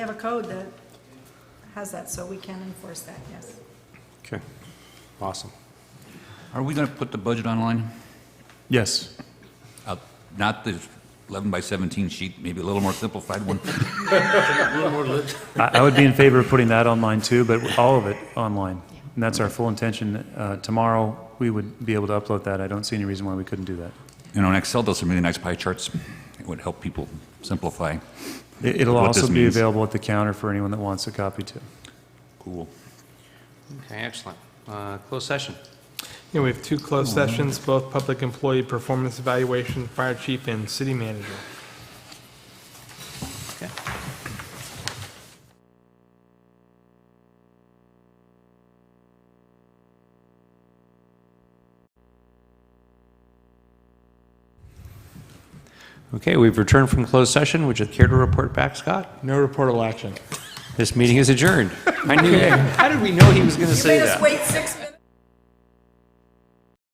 have a code that has that, so we can enforce that, yes. Okay, awesome. Are we going to put the budget online? Yes. Uh, Not the 11 by 17 sheet, maybe a little more simplified one? I I would be in favor of putting that online too, but all of it online. And that's our full intention. Uh, Tomorrow, we would be able to upload that. I don't see any reason why we couldn't do that. You know, and Excel does some really nice pie charts. It would help people simplify. It- It'll What this also be means. available at the counter for anyone that wants a copy too. Cool. Okay, excellent. Uh, Closed session. Yeah, we have two closed sessions, both public employee performance evaluation, fire chief and city manager. Okay. Okay, we've returned from closed session. Would you care to report back, Scott? No reportable action. This meeting is adjourned. I knew, how did we know he was going to You say made us that? wait six minutes.